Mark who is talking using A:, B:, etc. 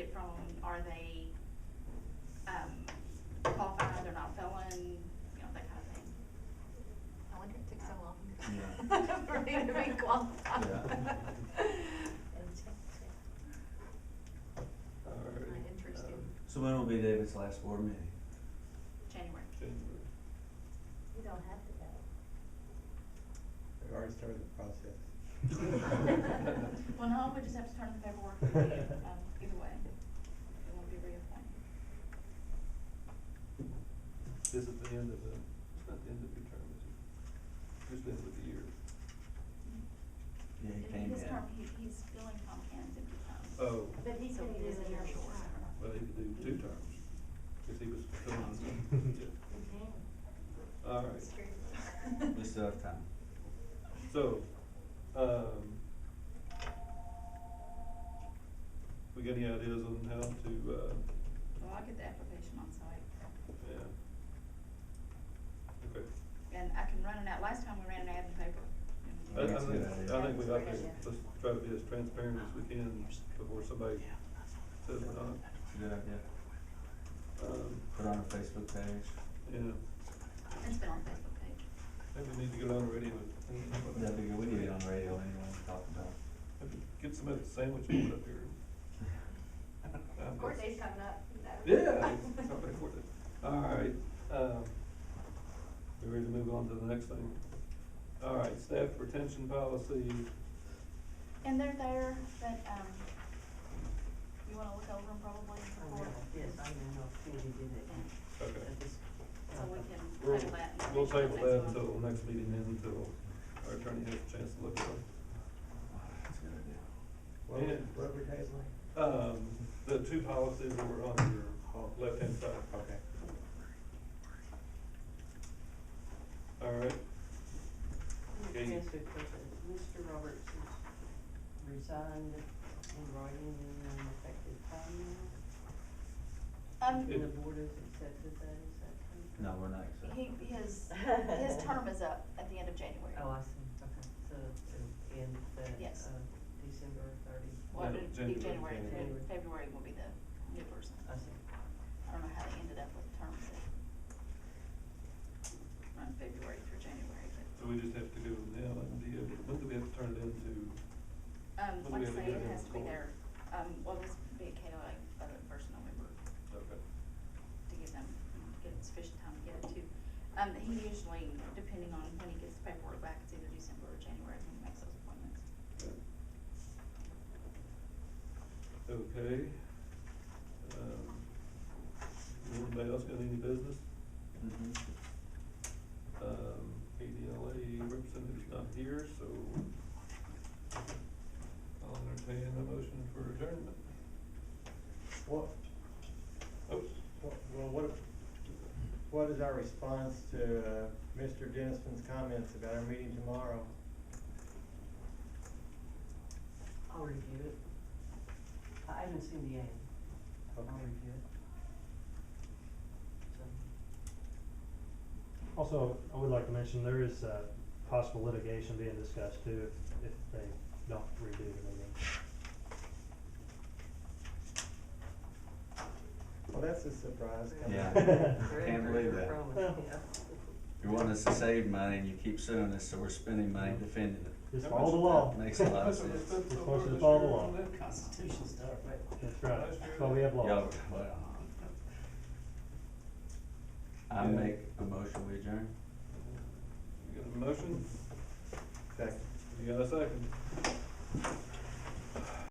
A: it from, are they, um, qualified, they're not felon, you know, that kind of thing.
B: I wonder if it took so
A: Yeah.
B: long for me to be qualified.
C: Yeah.
D: All right.
B: Not interested.
D: um,
C: So when will be David's last board meeting?
A: January.
D: January.
E: You don't have to go.
D: They've already started the process.
A: Well, no, we just have to turn in the paperwork, we do, um, either way, it won't be reappointed.
D: This is the end of the, it's not the end of your term, is it? Just the end of the year.
C: Yeah, he
A: If
C: came
A: His term,
C: in.
A: he, he's filling Tom Cannon's empty time.
D: Oh,
E: But he
A: So
E: can do
A: he is
E: it
A: in your
E: another
A: short
E: time.
A: term.
D: well, he could do two terms, cause he was filling, yeah.
E: You can.
D: All right,
E: It's true.
C: We still have time.
D: so, um, we got any ideas on how to, uh,
A: Well, I'll get the application on site.
D: yeah? Okay.
A: And I can run it out, last time we ran an ad in the paper.
D: I, I
C: That's a
D: think,
C: good idea.
D: I think we ought to,
E: Yeah.
D: let's try to be as transparent as we can before somebody says we're not.
C: It's a good idea.
D: Um,
C: Put on a Facebook page.
D: yeah,
A: It's been on Facebook page.
D: maybe we need to get on uh, the radio.
C: That'd be good. We need it on the radio anyway to talk about.
D: Get some of the sandwich and put up here. Um,
B: Court date's coming up. is that right?
D: Yeah, it's not very important. All right, um, we ready to move on to the next thing? All right, staff retention policy,
A: And they're there, but, um, you wanna look over them probably before?
F: Yes, I don't know if Sandy did it.
D: okay.
F: I just-
A: So we can
D: We'll,
A: table that. and
D: we'll
A: make sure
D: table
A: that's
D: that
A: on.
D: until the next meeting, and until our attorney has a chance to look at it.
C: That's a good idea.
D: What we-
G: what we
D: Um, the two policies that were on your uh, left-hand side.
G: Okay.
D: All right,
F: Let me ask you a question. Mr. Roberts has resigned in writing in an effective time now?
A: Um,
D: It-
F: And the board has accepted that, is that true?
C: No, we're not accepting.
A: he, his, his term is up at the end of January.
F: Oh, I see, okay, so it'll end the,
A: Yes.
F: uh, December thirty,
A: Well,
D: No,
A: it'd be January,
D: January,
F: January.
A: February will be the new person.
F: I see.
A: I don't know how they ended up with terms that run February through January,
D: so we just have to go now, and the, uh, when do we have to turn it into?
A: but, um,
D: What do
A: like I
D: we have to
A: say,
D: do
A: it
D: to
A: has to be
D: record?
A: there, um, well, this be a KO like, by the first November
D: Okay.
A: to give them, to get sufficient time to get it to. Um, he usually, depending on when he gets the paperwork back, it's either December or January when he makes those appointments.
D: Okay. Um, Anybody else got any business?
C: Mhm.
D: Um, ADLA representative's not here, so I'll entertain a motion for adjournment.
G: What,
D: Oh,
G: what, well, what, what is our response to, uh, Mr. Dennison's comments about our meeting tomorrow?
F: I'll review it. I haven't seen the ad. I'll
G: Okay.
F: review it. So,
H: Also, I would like to mention, there is, uh, possible litigation being discussed too, if, if they don't redo the meeting.
G: Well, that's a surprise.
C: Yeah. Can't believe that. You want us to save money and you keep suing us, so we're spending money defending it.
H: Just
D: That
H: follow the
D: makes-
H: law.
C: That makes a lot of sense.
D: That's what we spent so
H: Of
D: far
H: course, it's
D: this year
H: all
D: on
H: the law.
D: that.
F: Constitution stuff, right?
H: That's right,
D: Last
H: that's
D: year-
H: why we have
C: Y'all,
H: laws.
C: well. I make a motion, we adjourn.
D: You got a motion?
G: Second.
D: You got a second?